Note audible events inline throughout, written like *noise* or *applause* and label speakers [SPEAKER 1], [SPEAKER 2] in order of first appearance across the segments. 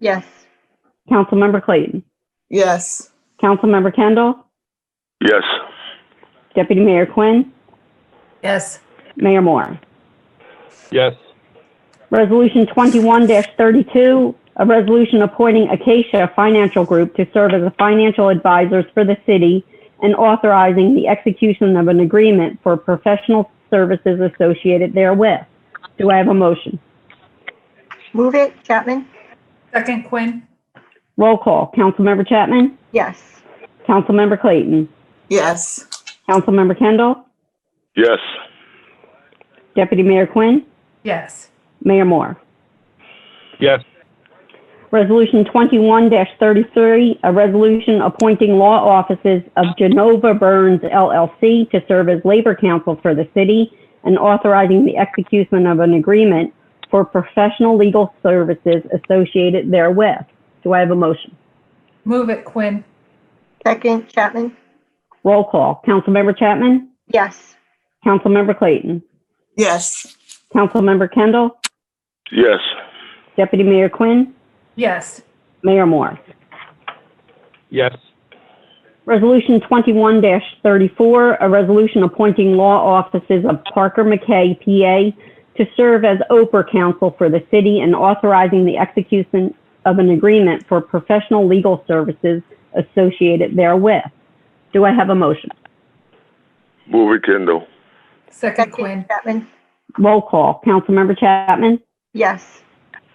[SPEAKER 1] Yes.
[SPEAKER 2] Councilmember Clayton.
[SPEAKER 3] Yes.
[SPEAKER 2] Councilmember Kendall.
[SPEAKER 4] Yes.
[SPEAKER 2] Deputy Mayor Quinn.
[SPEAKER 3] Yes.
[SPEAKER 2] Mayor Moore.
[SPEAKER 4] Yes.
[SPEAKER 2] Resolution 21-32, a resolution appointing Acacia Financial Group to serve as a financial advisors for the city and authorizing the execution of an agreement for professional services associated therewith. Do I have a motion?
[SPEAKER 1] Move it, Chapman?
[SPEAKER 3] Second Quinn?
[SPEAKER 2] Roll call. Councilmember Chapman?
[SPEAKER 1] Yes.
[SPEAKER 2] Councilmember Clayton?
[SPEAKER 3] Yes.
[SPEAKER 2] Councilmember Kendall?
[SPEAKER 4] Yes.
[SPEAKER 2] Deputy Mayor Quinn?
[SPEAKER 3] Yes.
[SPEAKER 2] Mayor Moore?
[SPEAKER 4] Yes.
[SPEAKER 2] Resolution 21-33, a resolution appointing law offices of Genova Burns LLC to serve as labor counsel for the city and authorizing the execution of an agreement for professional legal services associated therewith. Do I have a motion?
[SPEAKER 3] Move it Quinn?
[SPEAKER 1] Second, Chapman?
[SPEAKER 2] Roll call. Councilmember Chapman?
[SPEAKER 1] Yes.
[SPEAKER 2] Councilmember Clayton?
[SPEAKER 3] Yes.
[SPEAKER 2] Councilmember Kendall?
[SPEAKER 4] Yes.
[SPEAKER 2] Deputy Mayor Quinn?
[SPEAKER 3] Yes.
[SPEAKER 2] Mayor Moore?
[SPEAKER 4] Yes.
[SPEAKER 2] Resolution 21-34, a resolution appointing law offices of Parker McKay, PA, to serve as Oprah counsel for the city and authorizing the execution of an agreement for professional legal services associated therewith. Do I have a motion?
[SPEAKER 4] Move it, Kendall.
[SPEAKER 3] Second Quinn?
[SPEAKER 1] Chapman?
[SPEAKER 2] Roll call. Councilmember Chapman?
[SPEAKER 1] Yes.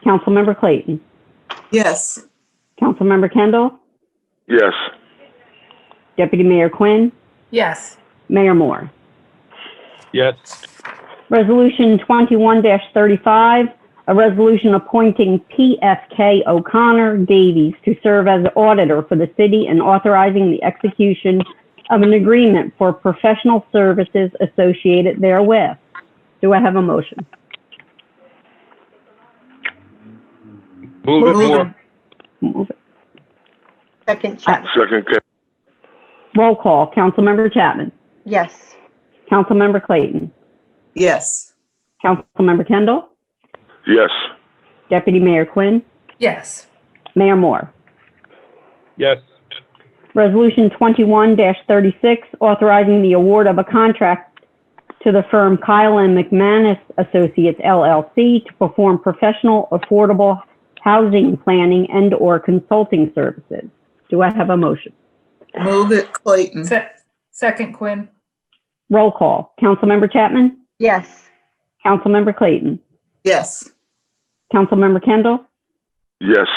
[SPEAKER 2] Councilmember Clayton?
[SPEAKER 3] Yes.
[SPEAKER 2] Councilmember Kendall?
[SPEAKER 4] Yes.
[SPEAKER 2] Deputy Mayor Quinn?
[SPEAKER 3] Yes.
[SPEAKER 2] Mayor Moore?
[SPEAKER 4] Yes.
[SPEAKER 2] Resolution 21-35, a resolution appointing PFK O'Connor Davies to serve as auditor for the city and authorizing the execution of an agreement for professional services associated therewith. Do I have a motion?
[SPEAKER 4] Move it, Moore.
[SPEAKER 2] Move it.
[SPEAKER 1] Second, Chapman?
[SPEAKER 4] Second, Ken-
[SPEAKER 2] Roll call. Councilmember Chapman.
[SPEAKER 1] Yes.
[SPEAKER 2] Councilmember Clayton.
[SPEAKER 3] Yes.
[SPEAKER 2] Councilmember Kendall.
[SPEAKER 4] yes.
[SPEAKER 2] Deputy Mayor Quinn.
[SPEAKER 3] Yes.
[SPEAKER 2] Mayor Moore.
[SPEAKER 4] Yes.
[SPEAKER 2] Resolution 21-36, authorizing the award of a contract to the firm Kyle and McManus Associates LLC to perform professional affordable housing planning and/or consulting services. Do I have a motion?
[SPEAKER 5] Move it Clayton.
[SPEAKER 3] Se- Second Quinn?
[SPEAKER 2] Roll call. Councilmember Chapman?
[SPEAKER 1] Yes.
[SPEAKER 2] Councilmember Clayton?
[SPEAKER 5] Yes.
[SPEAKER 2] Councilmember Kendall?
[SPEAKER 4] Yes.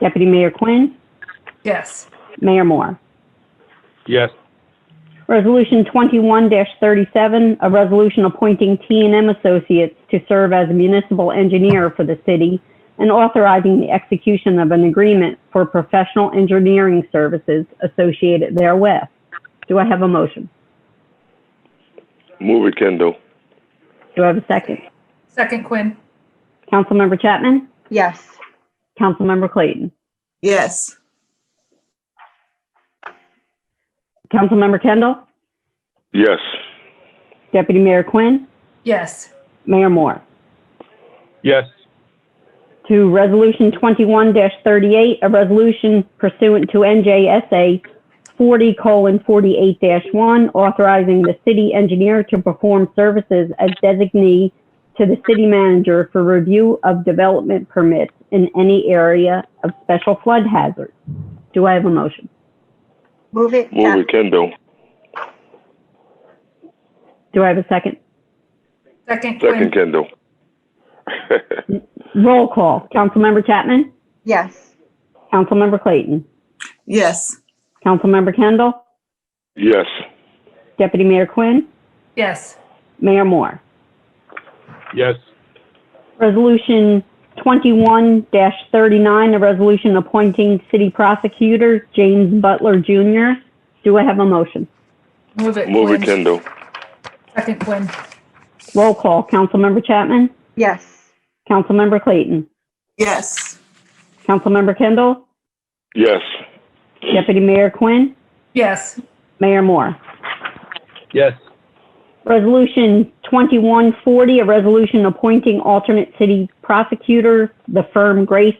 [SPEAKER 2] Deputy Mayor Quinn?
[SPEAKER 3] Yes.
[SPEAKER 2] Mayor Moore?
[SPEAKER 4] Yes.
[SPEAKER 2] Resolution 21-37, a resolution appointing t and m Associates to serve as municipal engineer for the city and authorizing the execution of an agreement for professional engineering services associated therewith. Do I have a motion?
[SPEAKER 4] Move it, Kendall.
[SPEAKER 2] Do I have a second?
[SPEAKER 3] Second Quinn?
[SPEAKER 2] Councilmember Chapman?
[SPEAKER 1] Yes.
[SPEAKER 2] Councilmember Clayton?
[SPEAKER 5] Yes.
[SPEAKER 2] Councilmember Kendall?
[SPEAKER 4] Yes.
[SPEAKER 2] Deputy Mayor Quinn?
[SPEAKER 3] Yes.
[SPEAKER 2] Mayor Moore?
[SPEAKER 4] Yes.
[SPEAKER 2] to Resolution 21-38, a resolution pursuant to NJSA 40:48-1, authorizing the city engineer to perform services as designee to the city manager for review of development permits in any area of special flood hazard. Do I have a motion?
[SPEAKER 1] Move it,
[SPEAKER 4] Move it,
[SPEAKER 1] Chapman?
[SPEAKER 4] Kendall.
[SPEAKER 2] Do I have a second?
[SPEAKER 3] Second
[SPEAKER 4] Second,
[SPEAKER 3] Quinn?
[SPEAKER 4] Kendall.
[SPEAKER 2] Roll call. Councilmember Chapman?
[SPEAKER 1] Yes.
[SPEAKER 2] Councilmember Clayton?
[SPEAKER 5] Yes.
[SPEAKER 2] Councilmember Kendall?
[SPEAKER 4] *laughs* Yes.
[SPEAKER 2] Deputy Mayor Quinn?
[SPEAKER 3] Yes.
[SPEAKER 2] Mayor Moore?
[SPEAKER 4] Yes.
[SPEAKER 2] Resolution 21-39, a resolution appointing city prosecutor James Butler Jr. Do I have a motion?
[SPEAKER 3] Move it
[SPEAKER 4] Move it,
[SPEAKER 3] Quinn?
[SPEAKER 4] Kendall.
[SPEAKER 3] Second Quinn?
[SPEAKER 2] Roll call. Councilmember Chapman?
[SPEAKER 1] Yes.
[SPEAKER 2] Councilmember Clayton?
[SPEAKER 5] Yes.
[SPEAKER 2] Councilmember Kendall?
[SPEAKER 4] Yes.
[SPEAKER 2] Deputy Mayor Quinn?
[SPEAKER 3] Yes.
[SPEAKER 2] Mayor Moore?
[SPEAKER 4] Yes.
[SPEAKER 2] Resolution 2140, a resolution appointing alternate city prosecutor, the firm Grace